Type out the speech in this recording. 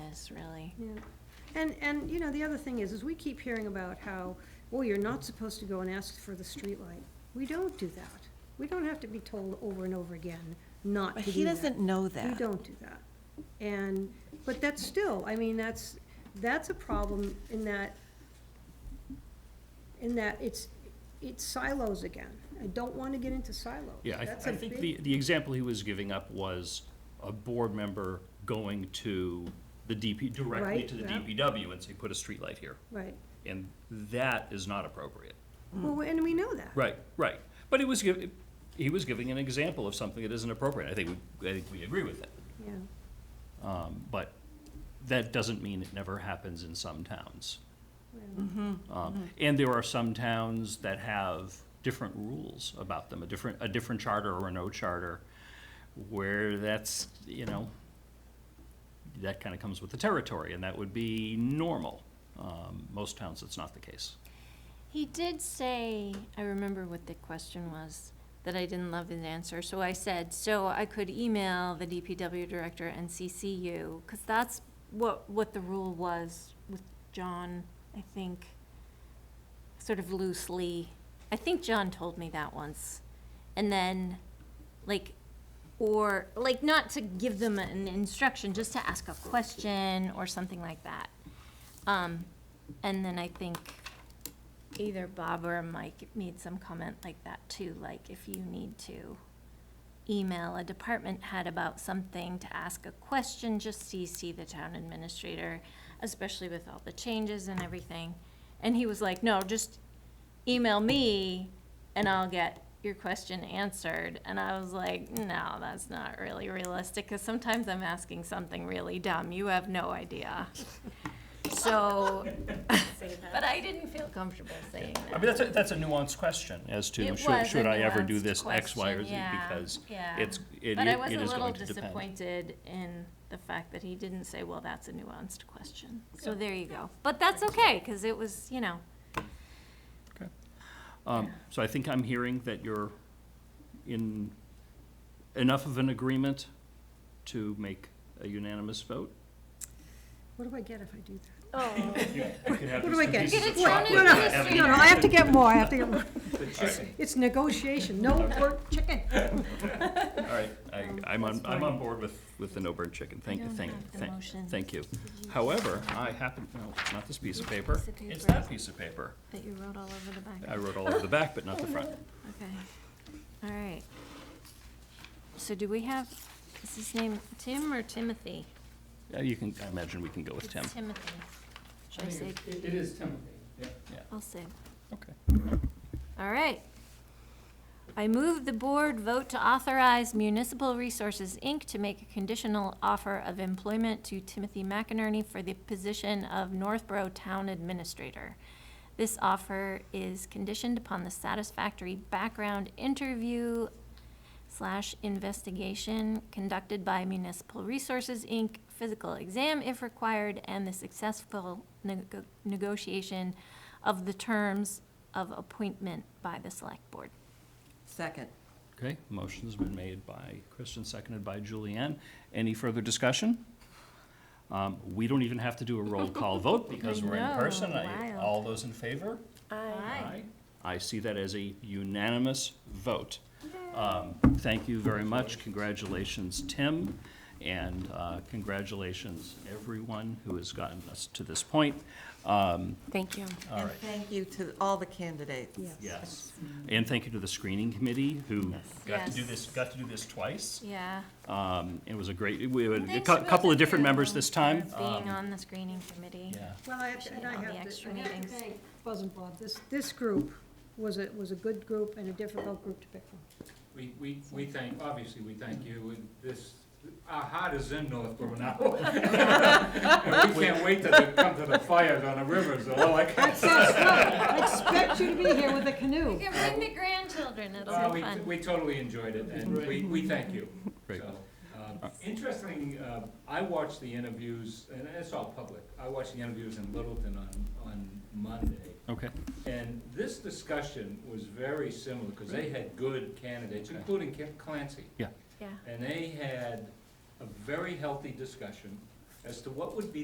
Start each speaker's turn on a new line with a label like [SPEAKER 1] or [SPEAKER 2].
[SPEAKER 1] is, really.
[SPEAKER 2] Yeah, and, and, you know, the other thing is, is we keep hearing about how, oh, you're not supposed to go and ask for the streetlight. We don't do that. We don't have to be told over and over again not to
[SPEAKER 3] But
[SPEAKER 2] do that.
[SPEAKER 3] he doesn't know
[SPEAKER 2] We
[SPEAKER 3] that.
[SPEAKER 2] don't do that. And, but that's still, I mean, that's, that's a problem in that, in that it's, it's silos again. I don't want to get into silos.
[SPEAKER 4] Yeah, I,
[SPEAKER 2] That's
[SPEAKER 4] I
[SPEAKER 2] a
[SPEAKER 4] think
[SPEAKER 2] big-
[SPEAKER 4] the, the example he was giving up was a board member going to the DP, directly
[SPEAKER 2] Right,
[SPEAKER 4] to the
[SPEAKER 2] yeah.
[SPEAKER 4] DPW and say, put a streetlight here.
[SPEAKER 2] Right.
[SPEAKER 4] And that is not appropriate.
[SPEAKER 3] Hmm.
[SPEAKER 2] Well, and we know that.
[SPEAKER 4] Right, right. But it was, giv- he was giving an example of something that isn't appropriate. I think, we- I think we agree with it.
[SPEAKER 2] Yeah.
[SPEAKER 4] Um, But that doesn't mean it never happens in some towns.
[SPEAKER 3] Mm-hmm.
[SPEAKER 4] Um, And there are some towns that have different rules about them, a different, a different charter or no charter, where that's, you know, that kind of comes with the territory, and that would be normal. Um, Most towns, that's not the case.
[SPEAKER 1] He did say, I remember what the question was, that I didn't love his answer, so I said, so I could email the DPW director and CC you, because that's what, what the rule was with John, I think, sort of loosely. I think John told me that once. And then, like, or, like, not to give them an instruction, just to ask a question or something like that. Um, and then I think either Bob or Mike made some comment like that too, like if you need to email a department head about something to ask a question, just CC the town administrator, especially with all the changes and everything. And he was like, no, just email me and I'll get your question answered. And I was like, no, that's not really realistic, because sometimes I'm asking something really dumb. You have no idea. So, but I didn't feel comfortable saying
[SPEAKER 4] I
[SPEAKER 1] that.
[SPEAKER 4] mean, that's a, that's a nuanced question as to,
[SPEAKER 1] It
[SPEAKER 4] should,
[SPEAKER 1] was
[SPEAKER 4] should
[SPEAKER 1] a
[SPEAKER 4] I ever do
[SPEAKER 1] nuanced
[SPEAKER 4] this X, Y, or Z?
[SPEAKER 1] question, yeah,
[SPEAKER 4] Because
[SPEAKER 1] yeah.
[SPEAKER 4] it's, it
[SPEAKER 1] But I
[SPEAKER 4] i-
[SPEAKER 1] was
[SPEAKER 4] it
[SPEAKER 1] a
[SPEAKER 4] is
[SPEAKER 1] little
[SPEAKER 4] going to depend.
[SPEAKER 1] disappointed in the fact that he didn't say, well, that's a nuanced question. So there you go. But that's okay, because it was, you know,
[SPEAKER 4] Um, so I think I'm hearing that you're in enough of an agreement to make a unanimous vote?
[SPEAKER 2] What do I get if I do that?
[SPEAKER 1] oh,
[SPEAKER 4] What
[SPEAKER 2] What do I get?
[SPEAKER 1] pieces of
[SPEAKER 2] What?
[SPEAKER 1] chocolate
[SPEAKER 2] No, no,
[SPEAKER 1] that have
[SPEAKER 2] No, no, I have to get more, I have to get more. It's negotiation, no
[SPEAKER 4] Okay.
[SPEAKER 2] pork chicken.
[SPEAKER 4] All right, I, I'm on,
[SPEAKER 2] That's
[SPEAKER 4] I'm on
[SPEAKER 2] fine.
[SPEAKER 4] board with, with the no burn chicken, thank,
[SPEAKER 1] I don't
[SPEAKER 4] thank,
[SPEAKER 1] have the
[SPEAKER 4] thank,
[SPEAKER 1] motions.
[SPEAKER 4] thank you. However, I happen, no, not this piece of paper,
[SPEAKER 1] Piece of
[SPEAKER 4] it's
[SPEAKER 1] paper.
[SPEAKER 4] that piece of paper.
[SPEAKER 1] that you wrote all over the back.
[SPEAKER 4] I wrote all over the back, but not the front.
[SPEAKER 1] Okay, all right. So do we have, is his name Tim or Timothy?
[SPEAKER 4] Yeah, You can, I imagine we can go with Tim,
[SPEAKER 1] It's Timothy. Should I say,
[SPEAKER 5] It is Timothy, yeah.
[SPEAKER 1] I'll say
[SPEAKER 4] okay.
[SPEAKER 1] All right. I move the board vote to authorize Municipal Resources, Inc. to make a conditional offer of employment to Timothy McInerney for the position of Northborough Town Administrator. This offer is conditioned upon the satisfactory background interview slash investigation conducted by Municipal Resources, Inc., physical exam if required, and the successful nego- negotiation of the terms of appointment by the select board.
[SPEAKER 3] Second.
[SPEAKER 4] Okay, motion's been made by Kristen, seconded by Julianne. Any further discussion? Um, We don't even have to do a roll call vote because we're in
[SPEAKER 1] know,
[SPEAKER 4] person. I-
[SPEAKER 1] wild.
[SPEAKER 4] All those in favor? Aye. I see that as a unanimous vote. Um, Thank you very much. Congratulations, Tim, and uh, congratulations, everyone who has gotten us to this point. Um,
[SPEAKER 1] Thank you.
[SPEAKER 4] All
[SPEAKER 3] And
[SPEAKER 4] right.
[SPEAKER 3] thank you to all the candidates.
[SPEAKER 4] Yes. And thank you to the screening committee who got to do
[SPEAKER 1] Yes.
[SPEAKER 4] this, got to do this twice.
[SPEAKER 1] Yeah.
[SPEAKER 4] Um, It was a great, we had a
[SPEAKER 1] Thanks
[SPEAKER 4] cou-
[SPEAKER 1] to
[SPEAKER 4] couple of
[SPEAKER 1] both
[SPEAKER 4] different
[SPEAKER 1] you
[SPEAKER 4] members this time.
[SPEAKER 1] for
[SPEAKER 4] Um,
[SPEAKER 1] Being on the screening committee.
[SPEAKER 4] Yeah,
[SPEAKER 2] Well, I have, to- and I
[SPEAKER 1] All the
[SPEAKER 2] have to,
[SPEAKER 1] extra
[SPEAKER 2] I have to
[SPEAKER 1] meetings.
[SPEAKER 2] thank Buzz and Bob, this, this group was a, was a good group and a difficult group to pick from.
[SPEAKER 5] We, we, we thank, obviously, we thank you, and this, our heart is in Northborough now. And we can't wait till they come to the fires on the rivers, all I can.
[SPEAKER 2] I expect you to be here with a canoe.
[SPEAKER 1] You can bring the grandchildren, it'll
[SPEAKER 5] Uh,
[SPEAKER 1] be
[SPEAKER 5] we,
[SPEAKER 1] fun.
[SPEAKER 5] we totally enjoyed it, and we, we thank you.
[SPEAKER 4] Great.
[SPEAKER 5] So, uh, Interesting, uh, I watched the interviews, and it's all public, I watched the interviews in Littleton on, on Monday.
[SPEAKER 4] okay.
[SPEAKER 5] And this discussion was very similar, because they had good candidates, including Ca- Clancy.
[SPEAKER 1] Yeah.
[SPEAKER 5] And they had a very healthy discussion as to what would be